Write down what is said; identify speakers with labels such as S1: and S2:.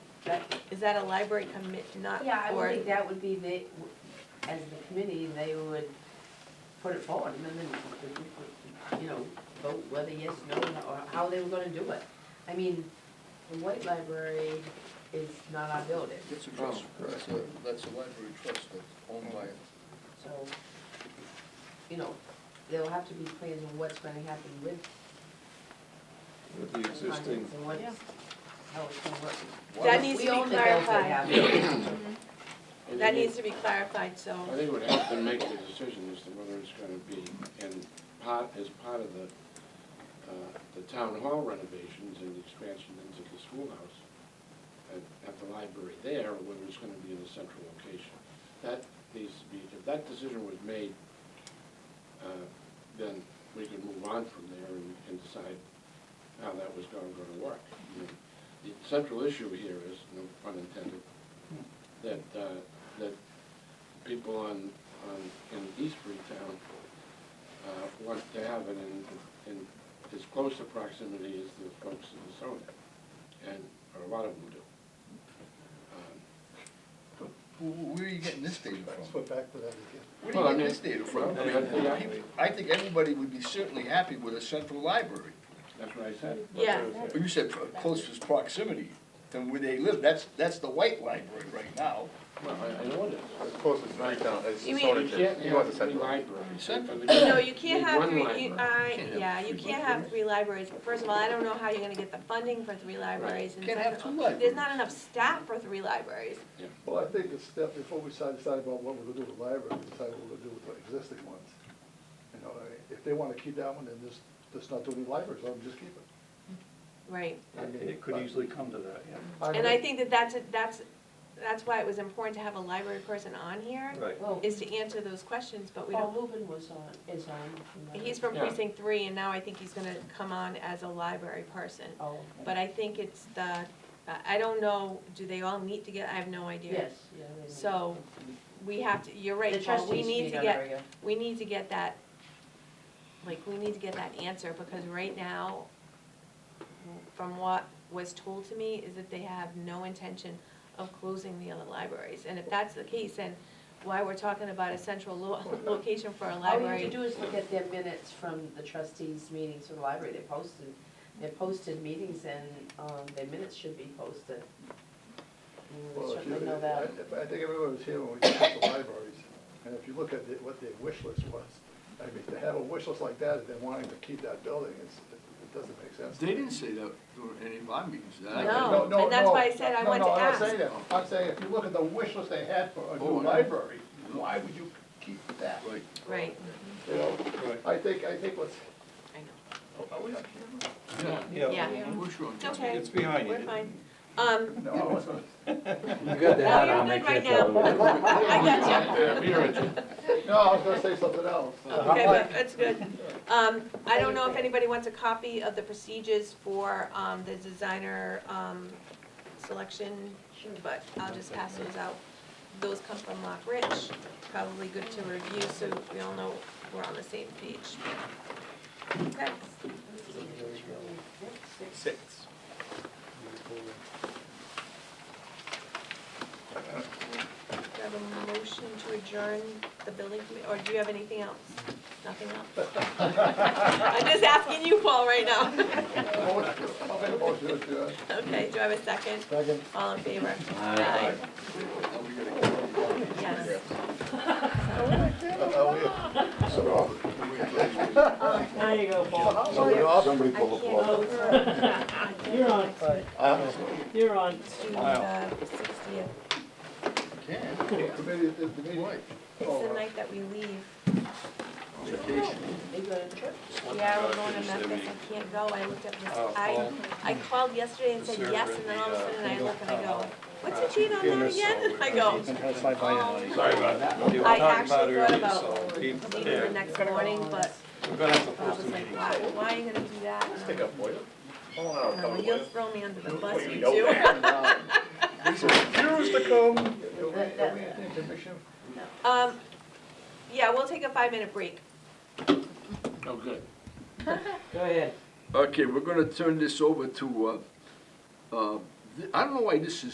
S1: that,
S2: Is that a library commit, not,
S1: yeah, I would
S2: or,
S1: think that would be the, as the committee, they would put it forward, and then, we would, you know, vote whether yes, no, or how they were gonna do it. I mean, the White Library is not our building,
S3: It's a
S4: Oh,
S3: trust, that's a, that's a library trust that's owned by,
S1: so, you know, there'll have to be plans on what's gonna happen with
S4: with the
S1: the contents
S4: existing,
S1: and what's,
S2: Yeah.
S1: how it's gonna work.
S2: That needs to
S1: We
S2: be
S1: own the bills that
S2: clarified.
S1: have it.
S5: And
S2: Mm-hmm. that
S5: they
S2: needs to be clarified, so,
S5: I think what has to make the decision as to whether it's gonna be in part, as part of the, uh, the town hall renovations and the expansion into the schoolhouse at, at the library there, or whether it's gonna be in a central location. That needs to be, if that decision was made, uh, then we could move on from there and, and decide how that was gonna, gonna work. You know, The central issue here is, no pun intended, that, uh, that people on, on, in East Freetown, uh, want to have it in, in as close a proximity as the folks in the zone, and a lot of them do. Um,
S3: Who- where are you getting this data from?
S6: Put back to that again.
S3: Where
S5: Well, I
S3: are you
S5: mean-
S3: getting this data from?
S5: Well, I mean, yeah.
S3: People- I think everybody would be certainly happy with a central library.
S5: That's what I said.
S2: yeah,
S3: But you said pro- closest proximity, than where they live, that's, that's the white library right now.
S5: Well, I, I know it is.
S6: As close as Freetown, as
S2: You mean-
S6: Stonington.
S5: You can't
S6: He wants a
S5: have three
S6: central.
S5: libraries.
S3: Central.
S2: no, you can't
S5: Need
S2: have
S5: one
S2: three, you,
S5: library.
S2: I,
S3: Can't have
S2: yeah, you
S3: three
S2: can't have
S3: libraries.
S2: three libraries, first of all, I don't know how you're gonna get the funding for three libraries, and
S3: Can't have
S2: second of
S3: two
S2: all, there's not
S3: libraries.
S2: enough staff for three libraries.
S6: Well, I think it's step, before we decide decide about what we're gonna do with the library, we decide what we're gonna do with the existing ones. You know, if they wanna keep that one, then just, just not do any libraries, let them just keep it.
S2: Right,
S6: mean,
S7: It could
S6: but-
S7: easily come to that, yeah.
S2: and I think that that's, a- that's, that's why it was important to have a library person on here,
S7: Right.
S1: Well,
S2: is to answer those questions, but we
S1: Paul
S2: don't,
S1: Rubin was on, is on.
S2: he's from
S5: Yeah.
S2: precinct three, and now I think he's gonna come on as a library person.
S1: Oh,
S2: But I think it's the, I- I don't know, do they all meet together? I have no idea.
S1: yes, yeah. they-
S2: So, we have to, you're
S1: The
S2: right, Paul, we
S1: trustees
S2: need
S1: meet
S2: to
S1: on
S2: get,
S1: regular.
S2: we need to get that, like, we need to get that answer, because right now, from what was told to me, is that they have no intention of closing the other libraries. And if that's the case, then why we're talking about a central lo- location for a
S1: All you have
S2: library.
S1: to do is look at their minutes from the trustees' meetings for the library, they posted, they posted meetings and, um, their minutes should be posted. You would
S6: Well, if you-
S1: certainly know that.
S6: I- I think everyone was here when we discussed the libraries, and if you look at it, what their wish list was, I mean, to have a wish list like that, if they're wanting to keep that building, it's, it it doesn't make sense.
S3: They didn't say that during any of our meetings. that I-
S2: No.
S6: No, no,
S2: Oh, and that's
S6: no.
S2: why I said I
S6: No,
S2: wanted
S6: no,
S2: to
S6: I'm not saying
S3: ask.
S6: that. I'm saying if you look at the wish list they had for a
S3: Oh,
S6: new
S3: I know.
S6: library, why would you keep that?
S3: Right.
S2: Right,
S6: You know,
S7: Right.
S6: I think, I think what's,
S2: I know.
S6: are we on
S3: Yeah.
S2: Yeah.
S3: We're sure on
S2: It's
S3: time.
S2: okay.
S7: It's behind you.
S2: We're fine. Um,
S6: camera? No.
S4: you got the hat on,
S2: No,
S4: they
S2: you're good
S4: can't tell.
S2: right
S4: the difference.
S2: I got you.
S5: Yeah, we are at-
S6: No, I was gonna say something else.
S2: Okay, but that's good. Um, I don't know if anybody wants a copy of the procedures for, um, the designer, um, selection, but I'll just pass those out. Those come from Lock Rich, probably good to review, so we all know we're on the same page. Okay.
S7: Six.
S2: do I have a motion to adjourn the building committee, or do you have anything else? Nothing else? I'm just asking you, Paul, right now.
S3: Oh,
S6: I'll make a motion to adjourn.
S2: Okay, do I have a second?
S6: Second.
S2: All in favor?
S4: Aye.
S3: Now we gotta-
S2: Yes.
S1: There you go, Paul.
S2: I can't go. You're on.
S8: You're on.
S2: the sixtieth.
S3: Can.
S6: Committee, the the meeting.
S3: Why?
S2: It's the night that we leave.
S1: They go to church.
S2: Yeah, we're going to Memphis. I can't go. I looked up this,
S7: Oh,
S2: I, I called yesterday and said yes, and then all of a
S7: uh,
S2: sudden I look and I go, what's the cheat on that again? I go, "Oh,
S7: Sorry about that. We were
S2: I
S7: talking about
S2: actually thought
S7: earlier,
S2: about
S7: so we-
S2: meeting the
S7: yeah,
S2: next morning, but
S7: we're gonna have to
S2: I was
S7: post a
S2: like,
S7: meeting.
S2: why, why are you gonna do that? And I'm like, "No, You'll throw me under the bus, you do.
S7: Here's the code.
S6: Are we are we in commission?
S2: Um, yeah, we'll take a five-minute break.
S5: Oh, good.
S8: Go ahead.
S3: Okay, we're gonna turn this over to, uh, uh, th- I don't know why this is